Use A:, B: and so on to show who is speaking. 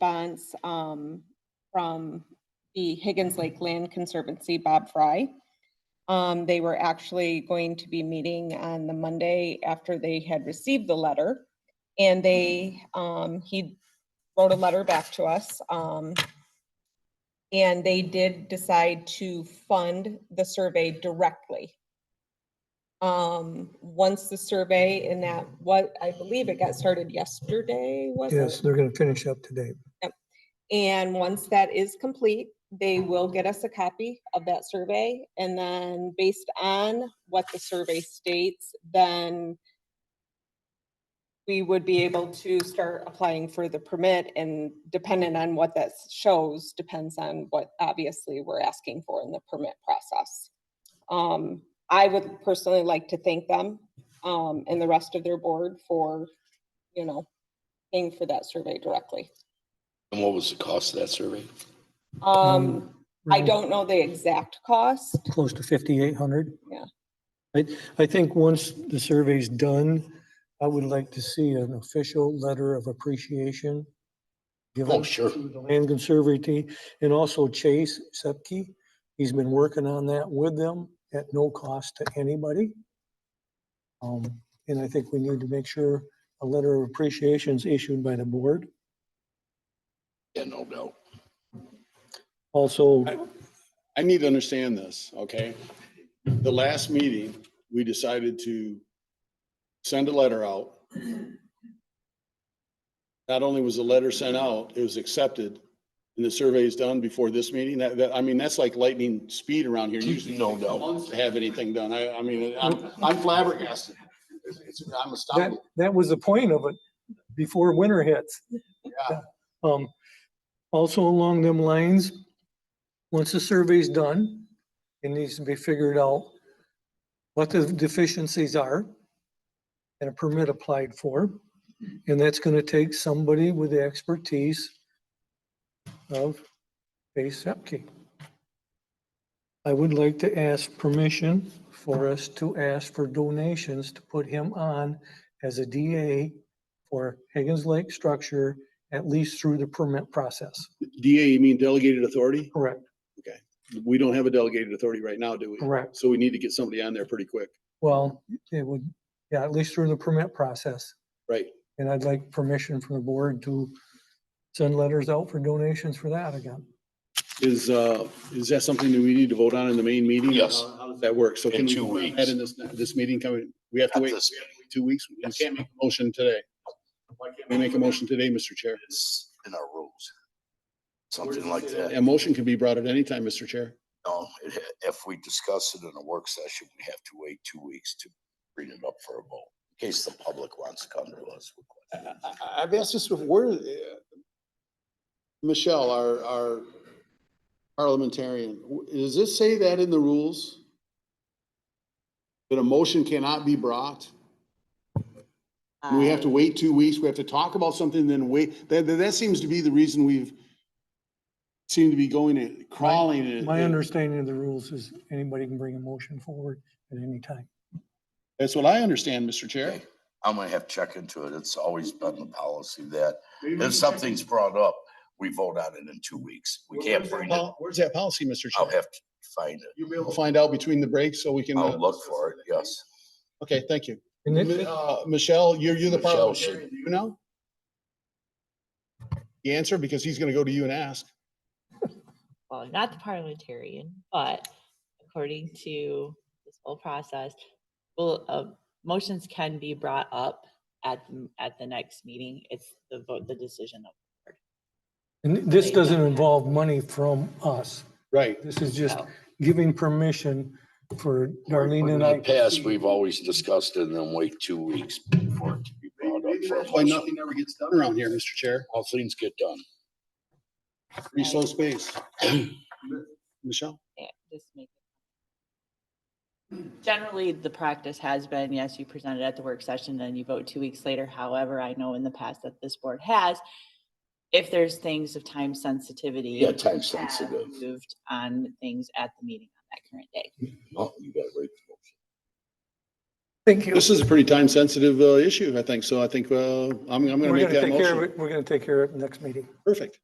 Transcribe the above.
A: response um, from the Higgins Lake Land Conservancy, Bob Fry. Um, They were actually going to be meeting on the Monday after they had received the letter. And they, um, he wrote a letter back to us. um, And they did decide to fund the survey directly. Um, Once the survey and that, what, I believe it got started yesterday, was it?
B: Yes, they're gonna finish up today.
A: And once that is complete, they will get us a copy of that survey. And then based on what the survey states, then we would be able to start applying for the permit and dependent on what that shows, depends on what obviously we're asking for in the permit process. Um, I would personally like to thank them, um, and the rest of their board for, you know, paying for that survey directly.
C: And what was the cost of that survey?
A: Um, I
B: Really
A: don't know the exact cost.
B: Close to fifty-eight hundred.
A: Yeah.
B: I, I think once the survey's done, I would like to see an official letter of appreciation.
C: Oh,
B: given
C: sure.
B: to the Land Conservancy and also Chase Sepke. He's been working on that with them at no cost to anybody. Um, and I think we need to make sure a letter of appreciation is issued by the board.
C: Yeah, no doubt.
B: Also,
D: I need to understand this, okay? The last meeting, we decided to send a letter out. Not only was the letter sent out, it was accepted and the survey is done before this meeting. That, that, I mean, that's like lightning speed around here. Usually
C: No
D: no
C: doubt.
D: months to have anything done. I, I mean, I'm, I'm flabbergasted. It's- it's- I'm
B: that,
D: astounded.
B: that was the point of it, before winter hits.
D: Yeah.
B: Um, also along them lines, once the survey's done, it needs to be figured out what the deficiencies are and a permit applied for. And that's gonna take somebody with the expertise of Base Sepke. I would like to ask permission for us to ask for donations to put him on as a DA for Higgins Lake Structure at least through the permit process.
D: DA, you mean delegated authority?
B: Correct,
D: We don't have a delegated authority right now, do we?
B: correct.
D: So we need to get somebody on there pretty quick,
B: Well, it would, yeah, at least through the permit process.
D: right?
B: And I'd like permission from the board to send letters out for donations for that again.
D: Is, uh, is that something that we need to vote on in the main meeting?
C: Yes.
D: How does that work? So
C: In
D: can we
C: two
D: vote on
C: weeks.
D: that in this, this meeting coming, we have to
C: At
D: wait
C: this
D: two weeks? We
C: Yes.
D: can't make a motion today. Why can't we make a motion today, Mr. Chair?
C: It's in our rules. Something like that.
D: A motion can be brought at any time, Mr. Chair.
C: No, it- if we discuss it in a work session, we have to wait two weeks to bring it up for a vote. In case the public wants to come to us. with
D: I, I, I've asked this before. uh, Michelle, our, our parliamentarian, w- does this say that in the rules? That a motion cannot be brought? We have to wait two weeks, we have to talk about something, then wait, that, that, that seems to be the reason we've seem to be going and crawling and.
B: My understanding of the rules is anybody can bring a motion forward at any time.
D: That's what I understand, Mr. Chair.
C: Okay. I'm gonna have to check into it. It's always been the policy that if something's brought up, we vote on it in two weeks. We can't bring it.
D: Where's that policy, Mr.
C: I'll
D: Chair?
C: have to find it.
D: You'll be able to find out between the breaks so we can. uh,
C: I'll look for it, yes.
D: Okay, thank you.
B: And it-
D: Uh, Michelle, you're, you're the
C: Michelle
D: parliamentarian, do you know? The answer, because he's gonna go to you and ask.
E: well, not the parliamentarian, but according to this whole process, well, uh, motions can be brought up at, the- at the next meeting. It's the vote, the decision of.
B: and this doesn't involve money from us.
D: Right.
B: This is just
E: No.
B: giving permission for Darlene and I. to see-
C: we've always discussed it and then wait two weeks for it to be
D: Maybe that's Why nothing ever gets done around here, Mr. Chair.
C: All things get done.
D: Free soul space. Michelle?
E: Yeah, just make it. Generally, the practice has been, yes, you present it at the work session, then you vote two weeks later. However, I know in the past that this board has, if there's things of time sensitivity.
C: Yeah, time
E: have
C: sensitive.
E: Moved on things at the meeting on that current day.
C: No, you gotta wait.
B: Thank you.
D: This is a pretty time-sensitive uh, issue, I think, so I think uh, I'm, I'm going to
B: We're
D: make
B: gonna
D: that
B: take care of
D: motion.
B: it. We're gonna take care of it next meeting.
D: Perfect.